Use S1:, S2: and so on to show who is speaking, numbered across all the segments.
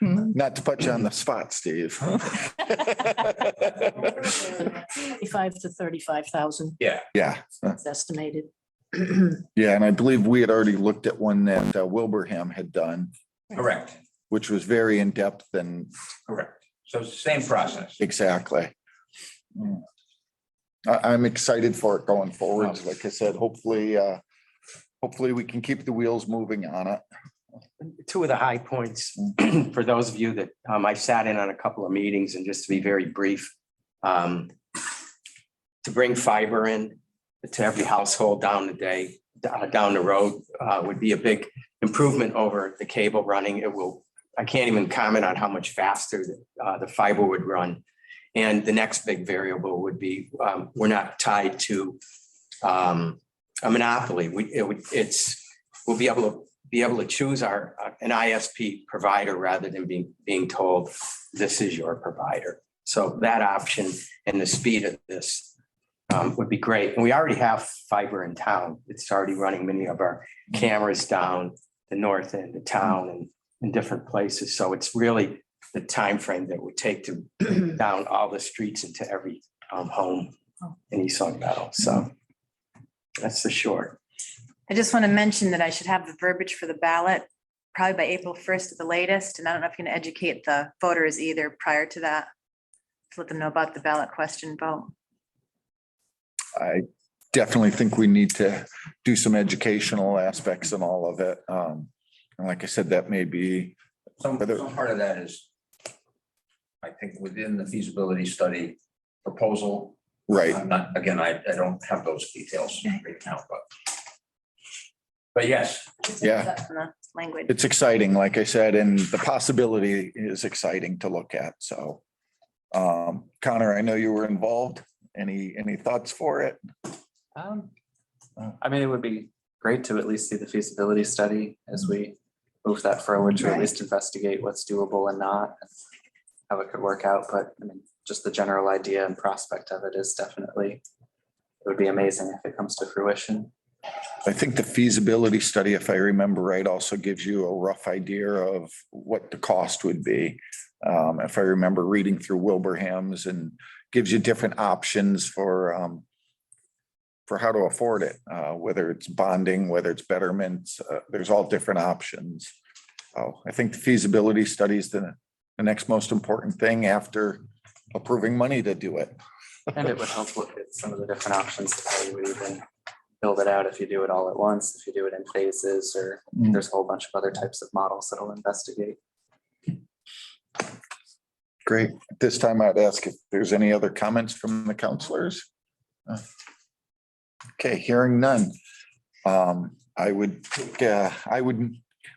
S1: Not to put you on the spot, Steve.
S2: Twenty-five to thirty-five thousand
S1: Yeah,
S2: is estimated.
S1: yeah, and I believe we had already looked at one that uh, Wilbraham had done,
S3: Correct,
S1: which was very in-depth and
S3: correct. So it's the same process.
S1: exactly. Hmm. I, I'm excited for it going forward. Like I said, hopefully, uh, hopefully we can keep the wheels moving on it.
S4: two of the high points, for those of you that, um, I've sat in on a couple of meetings and just to be very brief, um, to bring fiber in to every household down the day, uh, down the road, uh, would be a big improvement over the cable running. It will, I can't even comment on how much faster, uh, the fiber would run. And the next big variable would be, um, we're not tied to, um, a monopoly. We, it would, it's, we'll be able to be able to choose our, uh, an ISP provider rather than being, being told, this is your provider. So that option and the speed of this um, would be great. And we already have fiber in town. It's already running many of our cameras down the north end of town and in different places. So it's really the time frame that it would take to down all the streets into every um, home in East Long Meadow. So that's the short.
S5: I just want to mention that I should have the verbiage for the ballot probably by April first at the latest, and I don't know if you can educate the voters either prior to that. To let them know about the ballot question vote.
S1: I definitely think we need to do some educational aspects in all of it. Um, and like I said, that may be,
S3: Some,
S1: Whether-
S3: some part of that is, I think, within the feasibility study proposal.
S1: right,
S3: I'm not, again, I, I don't have those details right now, but. But yes,
S1: Yeah.
S5: From the Language.
S1: it's exciting, like I said, and the possibility is exciting to look at, so. Um, Connor, I know you were involved. Any, any thoughts for it?
S6: Um, I mean, it would be great to at least see the feasibility study as we move that forward to at least investigate what's doable and not. and How it could work out, but I mean, just the general idea and prospect of it is definitely, it would be amazing if it comes to fruition.
S1: I think the feasibility study, if I remember right, also gives you a rough idea of what the cost would be. Um, if I remember reading through Wilbraham's and gives you different options for, um, for how to afford it, uh, whether it's bonding, whether it's betterments, uh, there's all different options. So I think the feasibility study is the, the next most important thing after approving money to do it.
S6: And it would help look at some of the different options to how you would even build it out if you do it all at once, if you do it in phases, or
S1: Mm.
S6: there's a whole bunch of other types of models that'll investigate.
S1: Great. At This time I'd ask if there's any other comments from the counselors? Okay, hearing none. Um, I would, take, uh, I would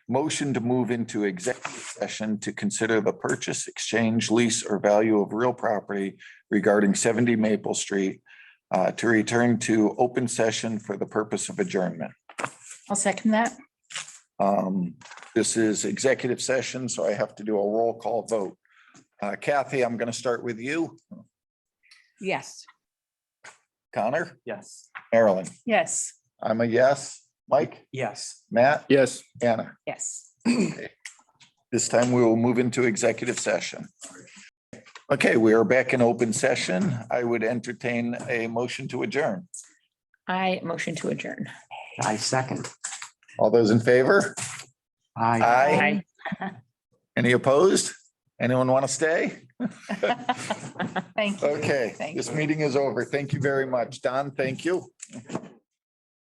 S1: motion to move into executive session to consider the purchase, exchange, lease or value of real property regarding seventy Maple Street uh, to return to open session for the purpose of adjournment.
S2: I'll second that.
S1: Um, This is executive session, so I have to do a roll call vote. Uh, Kathy, I'm going to start with you.
S2: Yes.
S1: Connor,
S6: Yes.
S1: Marilyn,
S2: Yes.
S1: I'm a yes. Mike,
S4: Yes.
S1: Matt?
S7: Yes.
S1: Anna.
S2: Yes.
S1: This time we will move into executive session. Okay, we are back in open session. I would entertain a motion to adjourn.
S2: I motion to adjourn.
S4: I second.
S1: All those in favor?
S4: Aye.
S1: Aye. Any opposed? Anyone want to stay?
S2: Thank you.
S1: Okay,
S2: Thank
S1: this
S2: you.
S1: meeting is over. Thank you very much. Don, thank you.